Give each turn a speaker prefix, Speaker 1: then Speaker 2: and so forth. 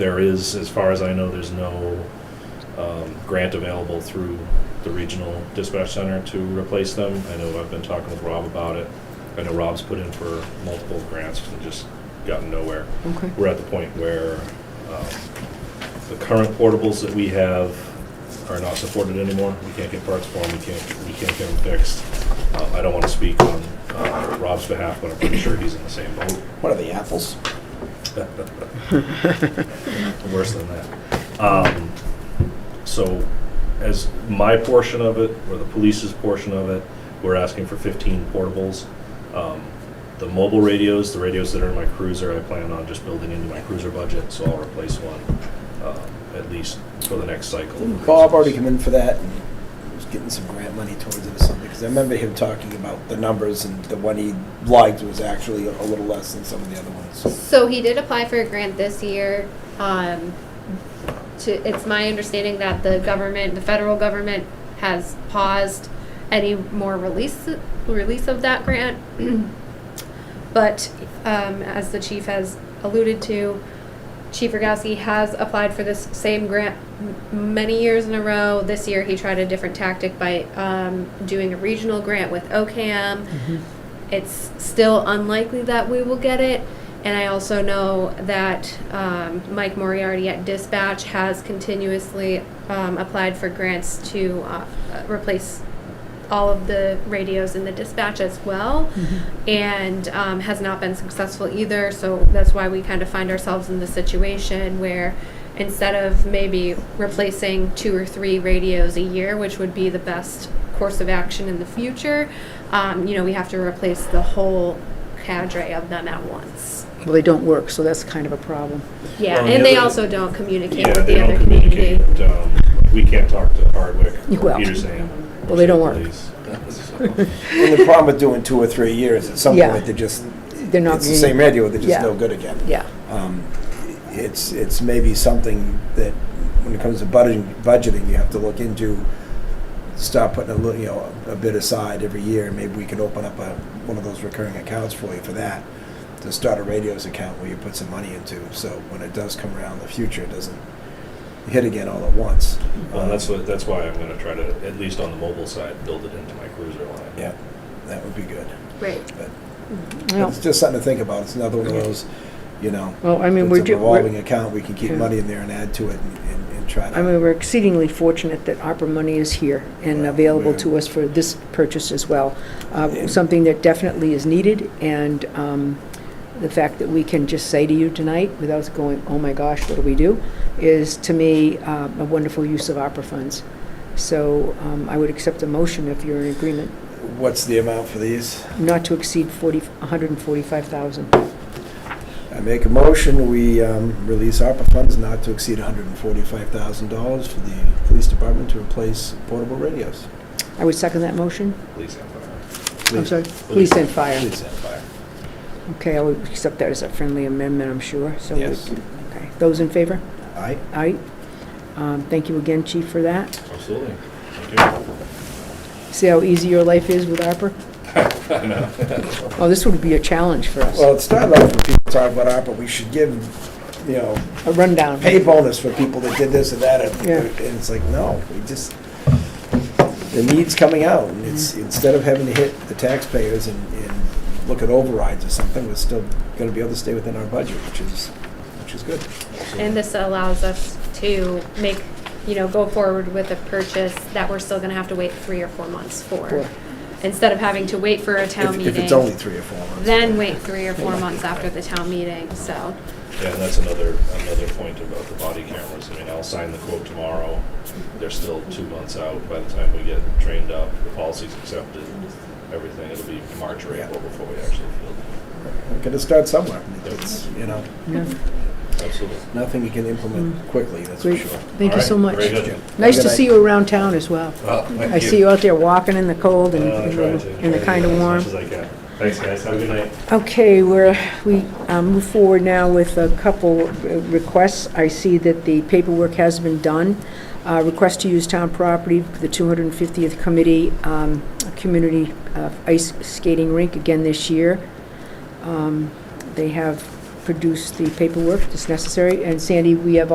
Speaker 1: There is, as far as I know, there's no um, grant available through the regional dispatch center to replace them. I know I've been talking with Rob about it. I know Rob's put in for multiple grants and just gotten nowhere.
Speaker 2: Okay.
Speaker 1: We're at the point where um, the current portables that we have are not supported anymore. We can't get parts for them, we can't, we can't get them fixed. Uh, I don't want to speak on uh, Rob's behalf, but I'm pretty sure he's in the same boat.
Speaker 3: What are the apples?
Speaker 1: worse than that. Um, so, as my portion of it, or the police's portion of it, we're asking for 15 portables. Um, the mobile radios, the radios that are in my cruiser, I plan on just building into my cruiser budget, so I'll replace one um, at least for the next cycle. of
Speaker 3: Bob already
Speaker 1: cruisers.
Speaker 3: came in for that and was getting some grant money towards it or something, because I remember him talking about the numbers and the one he liked was actually a little less than some of the other ones.
Speaker 4: So he did apply for a grant this year. Um, to, it's my understanding that the government, the federal government, has paused any more release release of that grant. but um, as the chief has alluded to, Chief Rogowski has applied for this same grant m- many years in a row. This year, he tried a different tactic by um, doing a regional grant with OCAM. It's still unlikely that we will get it. And I also know that um, Mike Moriarty at Dispatch has continuously um, applied for grants to uh, replace all of the radios in the dispatch as well, and um, has not been successful either. So that's why we kind of find ourselves in the situation where instead of maybe replacing two or three radios a year, which would be the best course of action in the future, um, you know, we have to replace the whole cadre of them at once.
Speaker 2: Well, they don't work, so that's kind of a problem.
Speaker 4: Yeah,
Speaker 1: Well,
Speaker 4: and
Speaker 1: the
Speaker 4: they
Speaker 1: other-
Speaker 4: also don't communicate
Speaker 1: Yeah,
Speaker 4: with
Speaker 1: they
Speaker 4: the
Speaker 1: don't
Speaker 4: other community.
Speaker 1: communicate. Um, we can't talk to Hardwick or
Speaker 2: Well.
Speaker 1: Peterson.
Speaker 2: Well, they don't work.
Speaker 3: And the problem with doing two or three years, at some
Speaker 2: Yeah.
Speaker 3: point, they're just,
Speaker 2: They're not.
Speaker 3: it's the same radio, they're just
Speaker 2: Yeah.
Speaker 3: no good again.
Speaker 2: Yeah,
Speaker 3: Um, It's, it's maybe something that, when it comes to budgeting, budgeting, you have to look into, stop putting a little, you know, a bit aside every year, maybe we could open up a, one of those recurring accounts for you for that, to start a radios account where you put some money into, so when it does come around in the future, it doesn't hit again all at once.
Speaker 2: Uh-huh.
Speaker 3: Uh,
Speaker 1: Well, that's, what- that's why I'm gonna try to, at least on the mobile side, build it into my cruiser line.
Speaker 3: Yeah, that would be good,
Speaker 4: Right.
Speaker 3: but
Speaker 2: well,
Speaker 3: it's just something to think about, it's another one of those, you know,
Speaker 2: well, I mean,
Speaker 3: it's
Speaker 2: we're,
Speaker 3: a
Speaker 2: ju-
Speaker 3: revolving
Speaker 2: we're-
Speaker 3: account, we can keep
Speaker 2: Yeah.
Speaker 3: money in there and add to it and- and and try to.
Speaker 2: I mean, we're exceedingly fortunate that ARPA money is here and
Speaker 3: Right,
Speaker 2: available
Speaker 3: yeah.
Speaker 2: to us for this purchase as well. Uh,
Speaker 3: Yeah.
Speaker 2: Something that definitely is needed, and um, the fact that we can just say to you tonight, without going, oh my gosh, what do we do, is to me uh, a wonderful use of ARPA funds. So um, I would accept a motion if you're in agreement,
Speaker 3: What's the amount for these?
Speaker 2: not to exceed 40, 145,000.
Speaker 3: I make a motion, we um, release ARPA funds not to exceed $145,000 for the police department to replace portable radios.
Speaker 2: I would second that motion.
Speaker 1: Police and fire.
Speaker 2: I'm
Speaker 3: Please.
Speaker 2: sorry? Police and fire.
Speaker 3: Police and fire.
Speaker 2: Okay, I would accept that as a friendly amendment, I'm sure. So we-
Speaker 3: Yes.
Speaker 2: Okay, those in favor?
Speaker 3: Aye.
Speaker 2: Aye. Um, Thank you again, Chief, for that.
Speaker 1: Absolutely. Thank you.
Speaker 2: See how easy your life is with ARPA?
Speaker 1: I know.
Speaker 2: Oh, this would be a challenge for us.
Speaker 3: Well, it started off with people talking about ARPA, we should give, you know,
Speaker 2: A rundown.
Speaker 3: pay bonus for people that did this and that. And
Speaker 2: Yeah.
Speaker 3: and it's like, no, we just, the need's coming out. And it's,
Speaker 2: Mm-hmm.
Speaker 3: instead of having to hit the taxpayers and, and look at overrides or something, we're still going to be able to stay within our budget, which is, which is good.
Speaker 4: And this allows us to make, you know, go forward with a purchase that we're still gonna have to wait three or four months
Speaker 2: Four.
Speaker 4: for. Instead of having to wait for a town
Speaker 3: If- If it's only
Speaker 4: meeting,
Speaker 3: three or four months.
Speaker 4: then wait three or four months after the town meeting, so.
Speaker 1: Yeah, and that's another, another point about the body cameras. I mean, I'll sign the quote tomorrow. They're still two months out by the time we get trained up, the policy's accepted, everything. It'll be March or April before we actually field
Speaker 3: We're gonna start somewhere. It's, you know,
Speaker 2: Yeah.
Speaker 1: it. Absolutely.
Speaker 3: nothing you can implement quickly, that's for
Speaker 2: Mm-hmm. Great.
Speaker 3: sure.
Speaker 2: Thank
Speaker 1: All
Speaker 2: you
Speaker 1: right,
Speaker 2: so much.
Speaker 1: very good.
Speaker 3: Jim.
Speaker 2: Nice
Speaker 3: Good
Speaker 2: to
Speaker 3: night.
Speaker 2: see you around town as well.
Speaker 1: Well, thank
Speaker 2: I see you out there walking in the cold and
Speaker 1: Uh, I try to.
Speaker 2: in
Speaker 1: Try
Speaker 2: the
Speaker 1: to
Speaker 2: kind
Speaker 1: do
Speaker 2: of
Speaker 1: that
Speaker 2: warm.
Speaker 1: As much as I can. Thanks, guys. Have a good night.
Speaker 2: Okay, we're, we um, move forward now with a couple uh, requests. I see that the paperwork has been done. Uh, Request to use town property, the 250th Committee, um, Community uh, Ice Skating Rink again this year. Um, They have produce the paperwork that's necessary. And Sandy, we have